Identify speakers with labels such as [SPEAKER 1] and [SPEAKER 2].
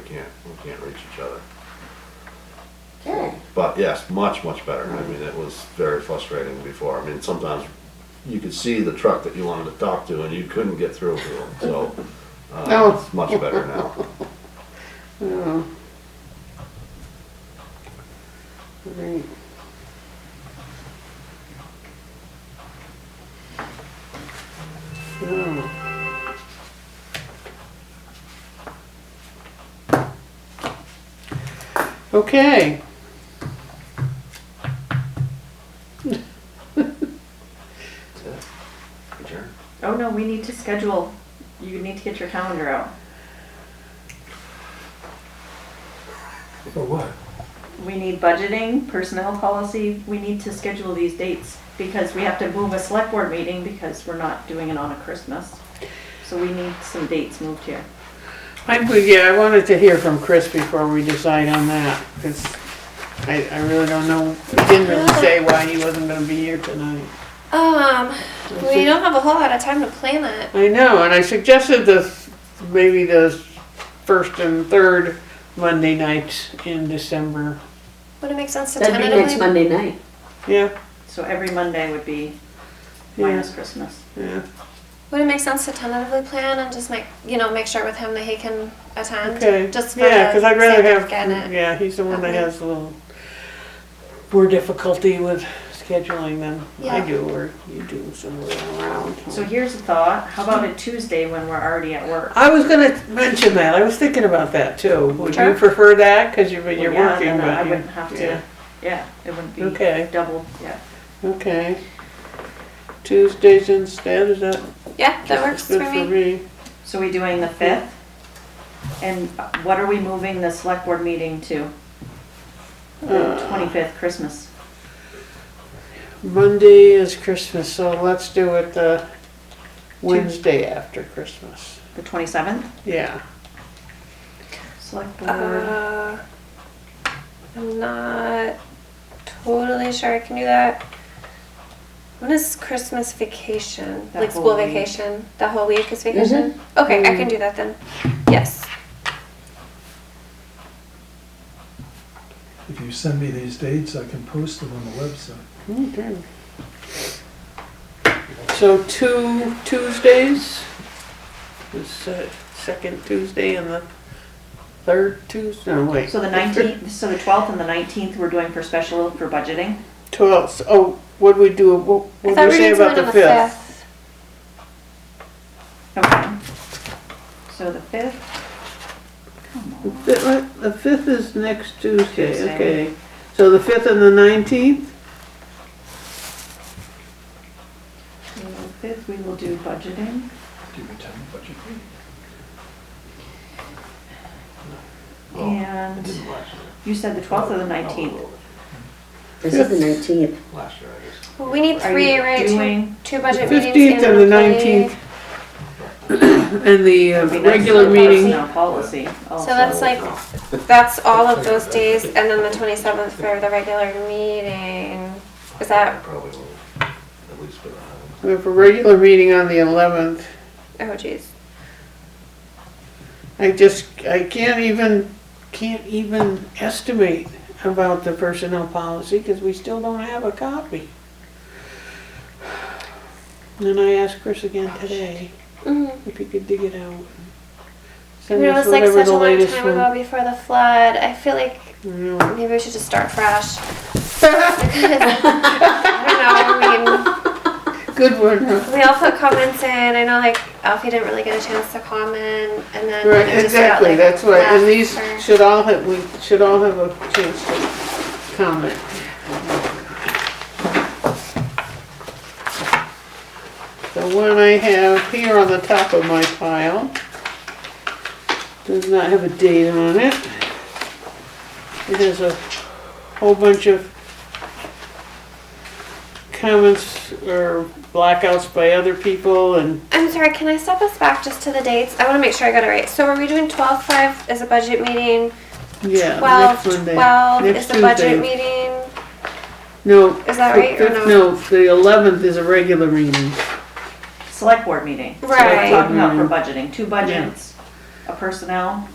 [SPEAKER 1] can't, we can't reach each other.
[SPEAKER 2] Okay.
[SPEAKER 1] But yes, much, much better. I mean, it was very frustrating before. I mean, sometimes you could see the truck that you wanted to talk to and you couldn't get through to them, so. uh,
[SPEAKER 2] No.
[SPEAKER 1] It's much better now.
[SPEAKER 2] Oh. Right. Oh. Okay.
[SPEAKER 1] That's it. Adjourn.
[SPEAKER 3] Oh no, we need to schedule, you need to get your calendar out.
[SPEAKER 4] For what?
[SPEAKER 3] We need budgeting, personnel policy, we need to schedule these dates because we have to move a select board meeting because we're not doing it on a Christmas. So we need some dates moved here.
[SPEAKER 2] I, would- yeah, I wanted to hear from Chris before we decide on that, because I, I really don't know, he didn't really say why he wasn't gonna be here tonight.
[SPEAKER 5] Um, we don't have a whole lot of time to plan it.
[SPEAKER 2] I know, and I suggested this, maybe the first and third Monday nights in December.
[SPEAKER 5] Would it make sense to
[SPEAKER 6] That'd be next
[SPEAKER 5] tentatively?
[SPEAKER 6] Monday night.
[SPEAKER 2] Yeah,
[SPEAKER 3] So every Monday would be minus Christmas.
[SPEAKER 2] yeah,
[SPEAKER 5] Would it make sense to tentatively plan and just make you know make sure with him that he can attend?
[SPEAKER 2] okay.
[SPEAKER 5] Just for
[SPEAKER 2] Yeah,
[SPEAKER 5] the
[SPEAKER 2] because I'd rather
[SPEAKER 5] sake of
[SPEAKER 2] have,
[SPEAKER 5] getting it.
[SPEAKER 2] yeah, he's the one that
[SPEAKER 5] Okay.
[SPEAKER 2] has a little more difficulty with scheduling than I
[SPEAKER 5] Yeah.
[SPEAKER 2] do, or you do somewhere around.
[SPEAKER 3] So here's a thought, how about a Tuesday when we're already at work?
[SPEAKER 2] I was gonna mention that. I was thinking about that too. Would you
[SPEAKER 3] Okay.
[SPEAKER 2] prefer that? Because you're,
[SPEAKER 3] Well,
[SPEAKER 2] you're
[SPEAKER 3] yeah,
[SPEAKER 2] working,
[SPEAKER 3] then
[SPEAKER 2] but
[SPEAKER 3] I
[SPEAKER 2] you-
[SPEAKER 3] wouldn't have
[SPEAKER 2] yeah.
[SPEAKER 3] to, yeah, it wouldn't be
[SPEAKER 2] Okay.
[SPEAKER 3] double, yeah.
[SPEAKER 2] Okay. Tuesdays instead, is that
[SPEAKER 5] Yeah, that works for
[SPEAKER 2] good for
[SPEAKER 5] me.
[SPEAKER 2] me?
[SPEAKER 3] So we doing the fifth? And what are we moving the select board meeting to? The twenty-fifth, Christmas.
[SPEAKER 2] Monday is Christmas, so let's do it the Wednesday after Christmas.
[SPEAKER 3] The twenty-seventh?
[SPEAKER 2] Yeah.
[SPEAKER 3] Select board.
[SPEAKER 5] Uh, I'm not totally sure I can do that. When is Christmas vacation?
[SPEAKER 3] That
[SPEAKER 5] like
[SPEAKER 3] whole
[SPEAKER 5] school
[SPEAKER 3] week.
[SPEAKER 5] vacation? The whole week is
[SPEAKER 6] Is
[SPEAKER 5] vacation?
[SPEAKER 6] it?
[SPEAKER 5] Okay, I can do that then. Yes.
[SPEAKER 4] If you send me these dates, I can post them on the website.
[SPEAKER 2] Okay. So two Tuesdays? Is uh, second Tuesday and the third Tuesday, no, wait.
[SPEAKER 3] So the nineteenth, so the twelfth and the nineteenth, we're doing for special for budgeting?
[SPEAKER 2] Twelfth, oh, what'd we do, what
[SPEAKER 5] I
[SPEAKER 2] what'd we
[SPEAKER 5] thought we
[SPEAKER 2] say
[SPEAKER 5] did
[SPEAKER 2] about
[SPEAKER 5] something
[SPEAKER 2] the
[SPEAKER 5] on the
[SPEAKER 2] fifth?
[SPEAKER 5] fifth.
[SPEAKER 3] Okay. So the fifth? Come on.
[SPEAKER 2] The what? The fifth is next Tuesday,
[SPEAKER 3] Tuesday.
[SPEAKER 2] okay. So the fifth and the nineteenth?
[SPEAKER 3] So the fifth, we will do budgeting.
[SPEAKER 4] Do you attend the budget meeting?
[SPEAKER 1] Oh, I
[SPEAKER 3] And
[SPEAKER 1] didn't last year.
[SPEAKER 3] you said the twelfth or the
[SPEAKER 1] No, I
[SPEAKER 3] nineteenth?
[SPEAKER 1] will.
[SPEAKER 6] This is the nineteenth.
[SPEAKER 1] Last year, I guess.
[SPEAKER 5] Well, we need three, right? Two-
[SPEAKER 3] doing-
[SPEAKER 5] Two budget meetings.
[SPEAKER 2] Fifteenth and the
[SPEAKER 5] one
[SPEAKER 2] nineteenth. And the uh,
[SPEAKER 3] It'd be nice
[SPEAKER 2] regular
[SPEAKER 3] for
[SPEAKER 2] meeting,
[SPEAKER 3] personnel Policy
[SPEAKER 5] employee.
[SPEAKER 3] also.
[SPEAKER 5] So that's like, that's all of those days, and then the twenty-seventh for the regular meeting. Is that,
[SPEAKER 1] Probably will, at least for that.
[SPEAKER 2] we have a regular meeting on the eleventh.
[SPEAKER 5] oh geez.
[SPEAKER 2] I just, I can't even, can't even estimate about the personnel policy because we still don't have a copy. And I asked Chris again today
[SPEAKER 5] Mhm.
[SPEAKER 2] if he could dig it out.
[SPEAKER 5] You
[SPEAKER 2] Send
[SPEAKER 5] know,
[SPEAKER 2] us
[SPEAKER 5] it's like
[SPEAKER 2] whatever
[SPEAKER 5] such
[SPEAKER 2] the
[SPEAKER 5] a long
[SPEAKER 2] latest
[SPEAKER 5] time
[SPEAKER 2] one.
[SPEAKER 5] ago before the flood. I feel like
[SPEAKER 2] Yeah.
[SPEAKER 5] maybe we should just start fresh. Because, I don't know, I mean.
[SPEAKER 2] Good one, huh?
[SPEAKER 5] We all put comments in. I know, like Alfie didn't really get a chance to comment, and then
[SPEAKER 2] Right,
[SPEAKER 5] it just got,
[SPEAKER 2] exactly,
[SPEAKER 5] like,
[SPEAKER 2] that's right,
[SPEAKER 5] left
[SPEAKER 2] and these
[SPEAKER 5] for-
[SPEAKER 2] should all have, we should all have a chance to comment. The one I have here on the top of my pile does not have a date on it. It has a whole bunch of comments or blackouts by other people and
[SPEAKER 5] I'm sorry. Can I step us back just to the dates? I want to make sure I got it right. So, are we doing twelve five as a budget meeting?
[SPEAKER 2] Yeah,
[SPEAKER 5] Twelve
[SPEAKER 2] next Monday.
[SPEAKER 5] twelve
[SPEAKER 2] Next
[SPEAKER 5] is the
[SPEAKER 2] Tuesday.
[SPEAKER 5] budget meeting.
[SPEAKER 2] No.
[SPEAKER 5] Is that
[SPEAKER 2] the
[SPEAKER 5] right or
[SPEAKER 2] fifth-
[SPEAKER 5] no?
[SPEAKER 2] No, the eleventh is a regular meeting.
[SPEAKER 3] Select board meeting. So we're
[SPEAKER 5] Right.
[SPEAKER 3] Talking about for
[SPEAKER 2] Mhm.
[SPEAKER 3] budgeting, two budgets, a personnel